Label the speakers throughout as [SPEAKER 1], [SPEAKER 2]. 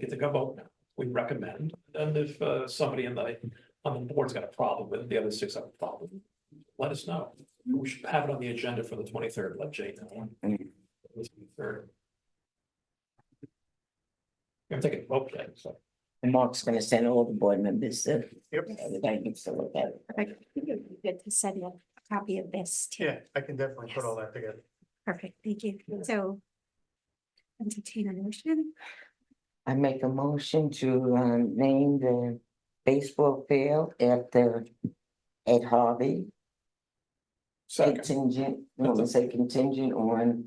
[SPEAKER 1] get to go vote now. We recommend, and if uh somebody in the, on the board's got a problem with it, the other six have a problem, let us know.
[SPEAKER 2] Mm-hmm.
[SPEAKER 1] We should have it on the agenda for the twenty-third, let Jay know.
[SPEAKER 2] Mm.
[SPEAKER 1] This is the third. You're taking a vote, Jay, so.
[SPEAKER 2] And Mark's gonna send all the board members the.
[SPEAKER 3] Yep.
[SPEAKER 2] The guidance to look at. it.
[SPEAKER 4] I think it would be good to send a copy of this too.
[SPEAKER 3] Yeah, I can definitely put all that together.
[SPEAKER 4] Perfect, thank you. So entertain a motion.
[SPEAKER 2] I make a motion to um name the baseball field after Ed Harvey. Contingent, you want to say contingent on,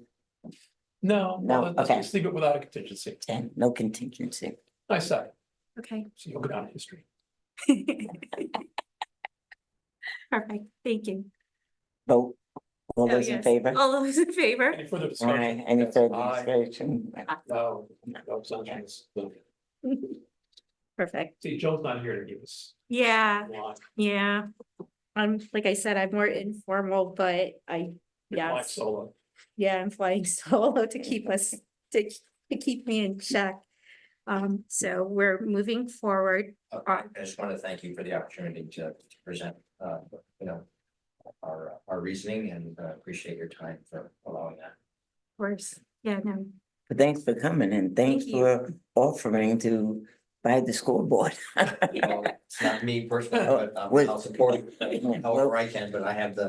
[SPEAKER 1] No,
[SPEAKER 2] No,
[SPEAKER 1] no, let's
[SPEAKER 2] okay.
[SPEAKER 1] just leave it without a contingency.
[SPEAKER 2] and no contingency.
[SPEAKER 1] I say,
[SPEAKER 4] Okay.
[SPEAKER 1] so you'll go down in history.
[SPEAKER 4] Perfect, thank you.
[SPEAKER 2] Vote, all
[SPEAKER 4] Oh,
[SPEAKER 2] those in
[SPEAKER 4] yes.
[SPEAKER 2] favor?
[SPEAKER 4] All those in favor?
[SPEAKER 1] Any further discussion?
[SPEAKER 2] Aye, any further
[SPEAKER 1] Aye.
[SPEAKER 2] discussion?
[SPEAKER 1] No, no, abstentions.
[SPEAKER 4] Perfect.
[SPEAKER 1] See, Joe's not here to give us
[SPEAKER 4] Yeah,
[SPEAKER 1] a line.
[SPEAKER 4] yeah. Um, like I said, I'm more informal, but I,
[SPEAKER 1] You're flying
[SPEAKER 4] Yes.
[SPEAKER 1] Solo.
[SPEAKER 4] yeah, I'm flying solo to keep us, to, to keep me in check. Um, so we're moving forward.
[SPEAKER 5] Uh,
[SPEAKER 4] Uh,
[SPEAKER 5] I just want to thank you for the opportunity to to present, uh, you know, our, our reasoning and uh, appreciate your time for allowing that.
[SPEAKER 4] Of course, yeah, no,
[SPEAKER 2] But Thanks for coming and thanks
[SPEAKER 4] Thank you.
[SPEAKER 2] for offering to buy the scoreboard.
[SPEAKER 5] Well, It's not me personally, but I'll
[SPEAKER 2] With-
[SPEAKER 5] I'll support you however I can, but I have the,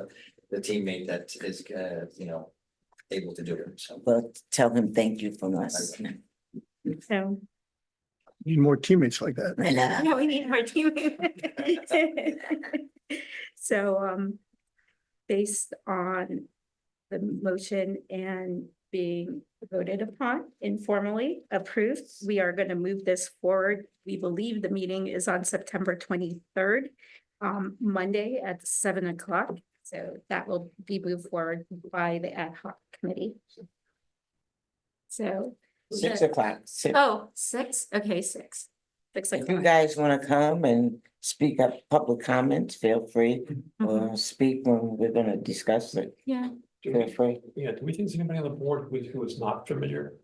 [SPEAKER 5] the teammate that is, uh, you know, able to do it, so.
[SPEAKER 2] Well, tell him thank you from us.
[SPEAKER 4] so.
[SPEAKER 3] Need more teammates like that.
[SPEAKER 2] And, uh,
[SPEAKER 4] Yeah, we need more team. So, um, based on the motion and being voted upon informally approved, we are going to move this forward. We believe the meeting is on September twenty-third, um, Monday at seven o'clock. So that will be moved forward by the ad hoc committee. So,
[SPEAKER 2] Six o'clock. six.
[SPEAKER 4] oh, six, okay, six. Six
[SPEAKER 2] If you
[SPEAKER 4] o'clock.
[SPEAKER 2] guys want to come and speak up public comments, feel free,
[SPEAKER 4] Mhm.
[SPEAKER 2] or speak when we're gonna discuss it,
[SPEAKER 4] Yeah.
[SPEAKER 1] Do we-
[SPEAKER 2] feel free.
[SPEAKER 1] Yeah, do we think there's anybody on the board who, who is not familiar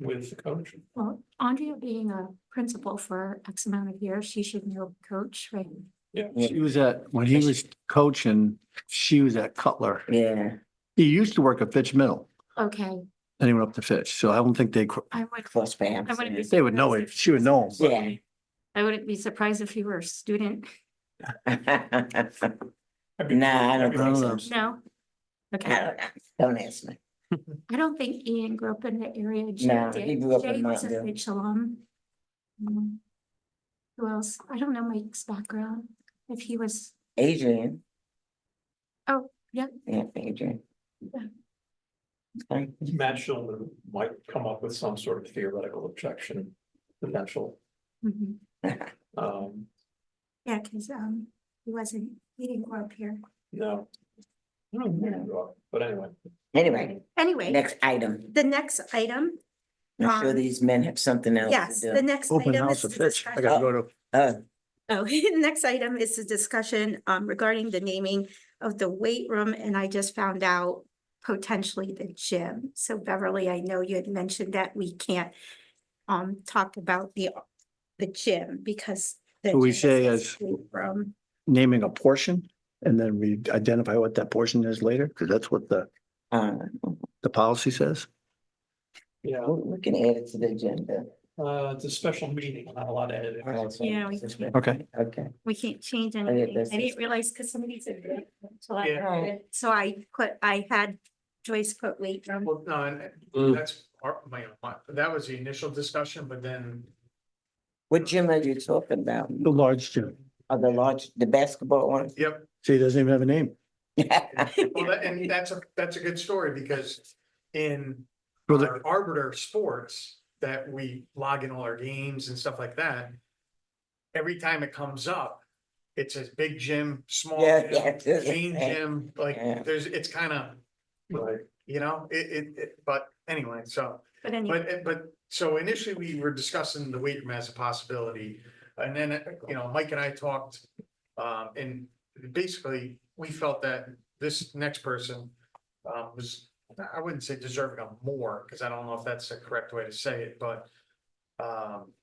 [SPEAKER 1] with the coach?
[SPEAKER 4] Well, Andrea being a principal for X amount of years, she should know coach, right?
[SPEAKER 6] She was at, when he was coaching, she was at Cutler.
[SPEAKER 2] Yeah,
[SPEAKER 6] He used to work at Fitch Middle,
[SPEAKER 4] Okay,
[SPEAKER 6] then he went up to Fitch, so I don't think they, cr-
[SPEAKER 4] I would,
[SPEAKER 2] cross perhaps.
[SPEAKER 4] I wouldn't be.
[SPEAKER 6] They would know
[SPEAKER 4] surprised
[SPEAKER 6] it.
[SPEAKER 4] if-
[SPEAKER 6] She would know.
[SPEAKER 2] Yeah.
[SPEAKER 4] I wouldn't be surprised if you were a student.
[SPEAKER 2] Don't,
[SPEAKER 1] Everybody-
[SPEAKER 2] Nah, I don't
[SPEAKER 1] everybody
[SPEAKER 6] think so.
[SPEAKER 1] knows.
[SPEAKER 4] No. Okay,
[SPEAKER 2] don't ask me.
[SPEAKER 4] I don't think Ian grew up in the area. Jay
[SPEAKER 2] No,
[SPEAKER 4] did.
[SPEAKER 2] he grew up in
[SPEAKER 4] Jay was a
[SPEAKER 2] Mountain View.
[SPEAKER 4] Fitch alum. Mm. Who else? I don't know Mike's background, if he was,
[SPEAKER 2] Adrian,
[SPEAKER 4] Oh, yeah,
[SPEAKER 2] yeah, Adrian. Okay.
[SPEAKER 1] Matt Shulman might come up with some sort of theoretical objection, potential,
[SPEAKER 4] mhm.
[SPEAKER 1] um,
[SPEAKER 4] yeah, because um, he wasn't, he didn't grow up here.
[SPEAKER 1] no. I don't know, But anyway,
[SPEAKER 2] Anyway,
[SPEAKER 4] Anyway.
[SPEAKER 2] next item.
[SPEAKER 4] The next item,
[SPEAKER 2] I'm sure
[SPEAKER 4] Um,
[SPEAKER 2] these men have something else
[SPEAKER 4] yes,
[SPEAKER 2] to
[SPEAKER 4] the
[SPEAKER 2] do.
[SPEAKER 4] next
[SPEAKER 6] open
[SPEAKER 4] item is
[SPEAKER 6] house at
[SPEAKER 4] the
[SPEAKER 6] Fitch. I
[SPEAKER 4] discussion.
[SPEAKER 6] gotta go to
[SPEAKER 2] Uh,
[SPEAKER 4] Oh, next item is the discussion um regarding the naming of the weight room, and I just found out potentially the gym. So Beverly, I know you had mentioned that we can't um talk about the the gym because. the
[SPEAKER 6] Should
[SPEAKER 4] gym
[SPEAKER 6] we
[SPEAKER 4] is
[SPEAKER 6] say
[SPEAKER 4] a
[SPEAKER 6] as-
[SPEAKER 4] weight Room,
[SPEAKER 6] naming a portion and then we identify what that portion is later, because that's what the,
[SPEAKER 2] uh,
[SPEAKER 6] the policy says.
[SPEAKER 1] yeah,
[SPEAKER 2] we we can add it to the agenda.
[SPEAKER 1] uh, it's a special meeting, not a lot of editing.
[SPEAKER 4] Yeah, we-
[SPEAKER 6] Okay.
[SPEAKER 2] Okay.
[SPEAKER 4] we can't change
[SPEAKER 2] yeah,
[SPEAKER 4] anything.
[SPEAKER 2] that's-
[SPEAKER 4] I didn't realize because somebody said. weight room, so I-
[SPEAKER 2] Yeah.
[SPEAKER 4] So I put, I had Joyce put weight room.
[SPEAKER 3] Well, no, and-
[SPEAKER 6] Mm.
[SPEAKER 3] and that's part of my, my- that was the initial discussion, but then
[SPEAKER 2] What gym are you talking about?
[SPEAKER 6] The large gym.
[SPEAKER 2] Are the large, the basketball one?
[SPEAKER 6] See, it doesn't even have a name.
[SPEAKER 3] Well, that- and that's a, that's a good story because in
[SPEAKER 6] Well, the-
[SPEAKER 3] our Arbiter Sports that we log in all our games and stuff like that. Every time it comes up, it says big gym, small
[SPEAKER 2] Yeah,
[SPEAKER 3] gym,
[SPEAKER 2] yeah.
[SPEAKER 3] chain gym,
[SPEAKER 2] Yeah.
[SPEAKER 3] like there's, it's kind of,
[SPEAKER 1] Right,
[SPEAKER 3] you know, it, it, it, but anyway, so.
[SPEAKER 4] But anyway,
[SPEAKER 3] But, but, so initially we were discussing the weight room as a possibility, and then, you know, Mike and I talked. Um, and basically, we felt that this next person, um, was, I wouldn't say deserving of more, because I don't know if that's the correct way to say it, but. Um,